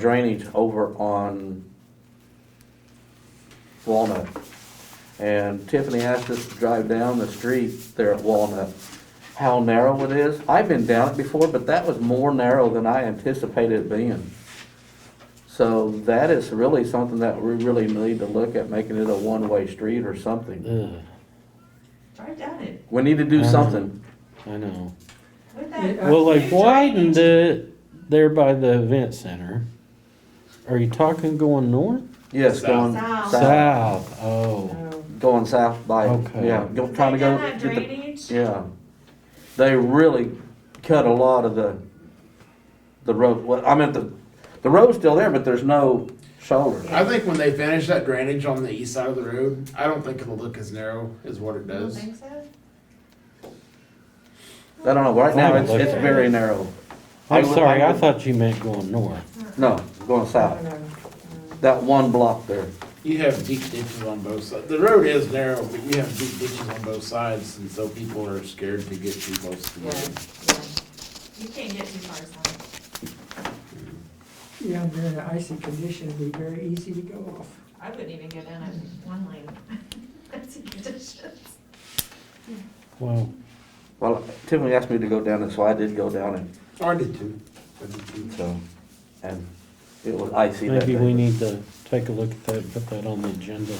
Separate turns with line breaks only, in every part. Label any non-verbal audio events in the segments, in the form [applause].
drainage over on Walnut. And Tiffany asked us to drive down the street there at Walnut, how narrow it is. I've been down it before, but that was more narrow than I anticipated it being. So that is really something that we really need to look at, making it a one-way street or something.
Ugh,
Drive down it.
We need to do something.
I know.
With that
Well,
huge
they've
drainage-
widened it there by the event center. Are you talking going north?
Yes, going
South.
south,
South, oh.
No.
going south by,
Okay.
yeah, go-
They
trying to go.
done that
get the-
drainage,
Yeah. They really cut a lot of the, the road, well, I meant the, the road's still there, but there's no shoulder.
I think when they finish that drainage on the east side of the road, I don't think it'll look as narrow as what it
you don't
does.
think so?
I don't know, right now, it's,
Fine,
it's
okay.
very narrow.
I'm
I would-
sorry, I
would-
thought you meant going north.
No, going
I
south,
don't know.
that one block there.
You have deep ditches on both sides. The road is narrow, but you have deep ditches on both sides, and so people are scared to get too close to the
Yeah,
road.
yeah. You can't get too far south.
Yeah, under an icy condition, it'd be very easy to go off.
I wouldn't even go down it one lane. [laughs] That's conditions.
Well,
Well, Tiffany asked me to go down it, so I did go down it,
Oh, I did too. I did too.
so, and it was icy that
maybe we
day.
need to take a look at that, put that on the agenda.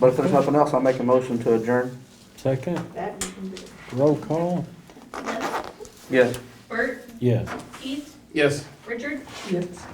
But if there's nothing else, I'll make a motion to adjourn.
Second,
That would be.
roll call,
Yes.
Bert,
yes.
Keith,
Yes.
Richard,
Yes.